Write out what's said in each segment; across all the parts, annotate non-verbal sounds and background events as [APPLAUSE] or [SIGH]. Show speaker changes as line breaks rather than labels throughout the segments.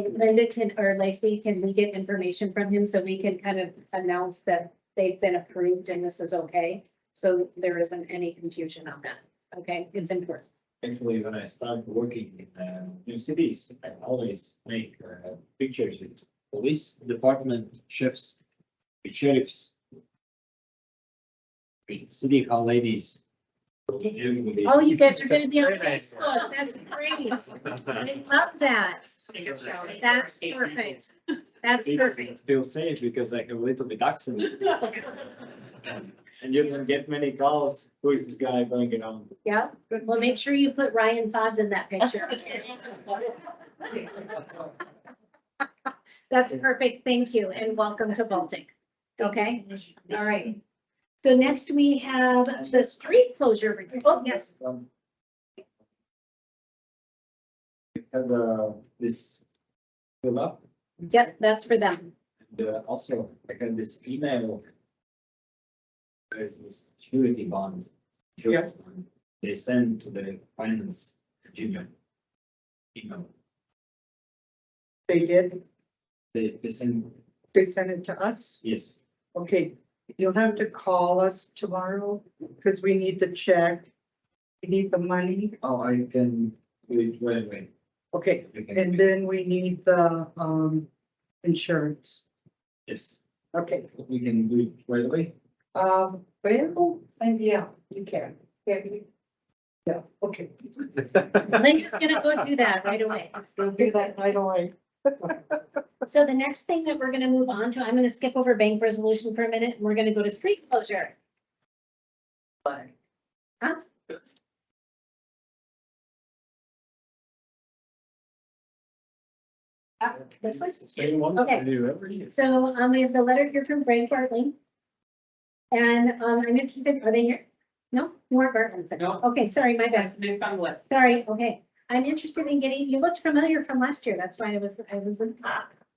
Linda can, or Lacey, can we get information from him so we can kind of announce that they've been approved and this is okay? So there isn't any confusion on that, okay? It's important.
Actually, when I started working in uh, new cities, I always make uh, pictures with police department chefs, with sheriffs, with city hall ladies. Everybody.
Oh, you guys are gonna be on
Very nice.
Facebook, that's great.
[LAUGHS]
I love that. That's perfect. That's
I
perfect.
Still say it because I have a little bit accent. And you don't get many calls, who is this guy going around?
Yeah, well, make sure you put Ryan Fodds in that [LAUGHS] picture. That's perfect. Thank you and welcome to Baltic. Okay, all right. So next we have the street closure. re- Oh, yes.
Um, we Have uh, this fill up.
Yep, that's for them.
And uh, also, I got this email. There's this security bond. insurance bond They send to the finance junior. Email,
They did,
they, they send,
they sent it to us.
yes,
Okay, you'll have to call us tomorrow because we need the check. We need the money.
oh, I can do it right away.
Okay,
You can-
and then we need the, um, insurance.
Yes,
Okay,
we can do it right away.
um, well, and yeah, you can. Can you? Yeah, okay.
Linda's gonna go do that right away.
Don't do that right away.
So the next thing that we're gonna move on to, I'm gonna skip over bank resolution for a minute. and We're gonna go to street closure. Uh, This one?
Same one
Okay.
I do every year.
So um, we have the letter here from Frank Bartley. And um, I'm interested, are they here? No, you weren't Bartlett.
No.
Okay, sorry, my bad.
Yes, new fund list.
Sorry, okay. I'm interested in getting, you looked familiar from last year. That's why I was, I was, in-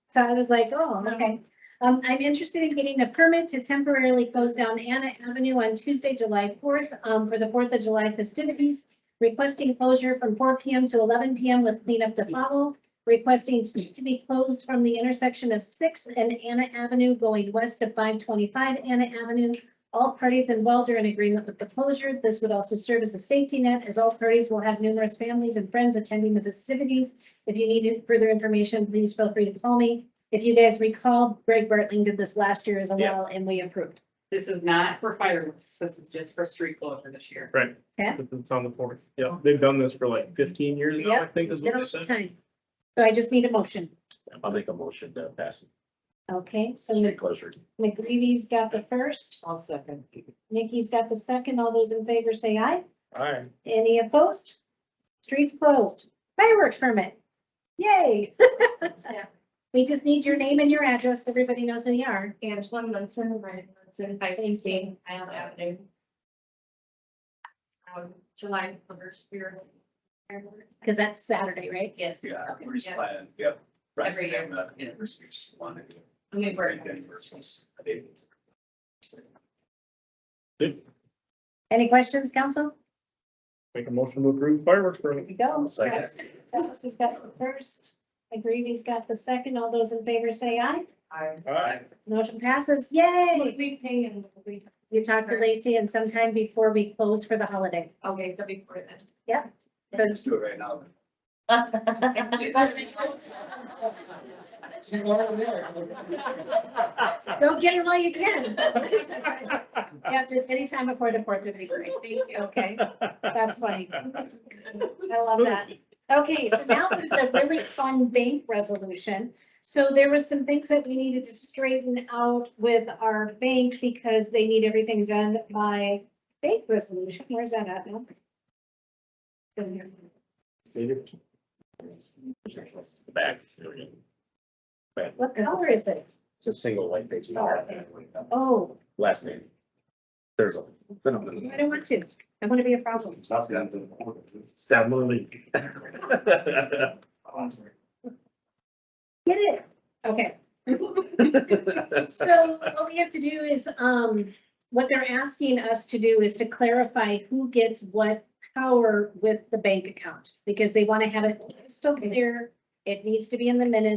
so I was like, oh, okay. Um, I'm interested in getting a permit to temporarily close down Anna Avenue on Tuesday, July fourth, um, for the Fourth of July festivities. Requesting closure from four P M to eleven P M with cleanup to follow. Requesting street to be closed from the intersection of Sixth and Anna Avenue going west of five twenty-five Anna Avenue. All parties involved are in agreement with the closure. This would also serve as a safety net as all parties will have numerous families and friends attending the festivities. If you need further information, please feel free to call me. If you guys recall, Greg Bertling did this last year as well and we approved.
[LAUGHS] This is not for fireworks. This is just for street closure this year.
Right.
Yeah.
It's on the fourth. Yeah, they've done this for like fifteen years now, I
Yep.
think is
Get
what they
off the
said.
time. So I just need a motion.
I'll make a motion to pass
Okay, so
street
Mc-
closure.
McGreevy's got the first,
I'll second.
Nikki's got the second. All those in favor say aye.
All right.
Any opposed? Streets closed. Fireworks permit. [LAUGHS] Yay. We just need your name and your address. Everybody knows who you are.
Angela Munson, Ryan Munson, five sixteen Isle Avenue. Um, July first, we're.
Because that's Saturday, right?
Yes.
Yeah,
Okay,
we're just
yeah.
planning, yep. Right,
Every year.
and, uh, anniversaries, one of the-
I mean, we're.
Right, anniversaries, I think.
Any questions, council?
Make a motion to approve fireworks
Here
permit.
we go.
Second.
Travis has got the first. McGreevy's got the second. All those in favor say aye.
I-
All right.
Motion passes.
What
Yay.
We pay and what we,
You talked to Lacey and sometime before we close for the holiday.
okay, so before then.
So
Let's do it right now.
go get it while you can. [LAUGHS] Yeah, just anytime before the fourth would be great. Thank you. Okay, that's funny. I love that. Okay, so now for the really fun bank resolution. So there were some things that we needed to straighten out with our bank because they need everything done by bank resolution. Where's that at now?
Back. there we go.
What color is it?
It's a single light page.
Oh,
Last name. There's a.
I don't want to. I want to be a problem.
Stab Lily.
Get it? Okay. So what we have to do is, um, what they're asking us to do is to clarify who gets what power with the bank account, because they want to have it still clear It needs to be in the minutes.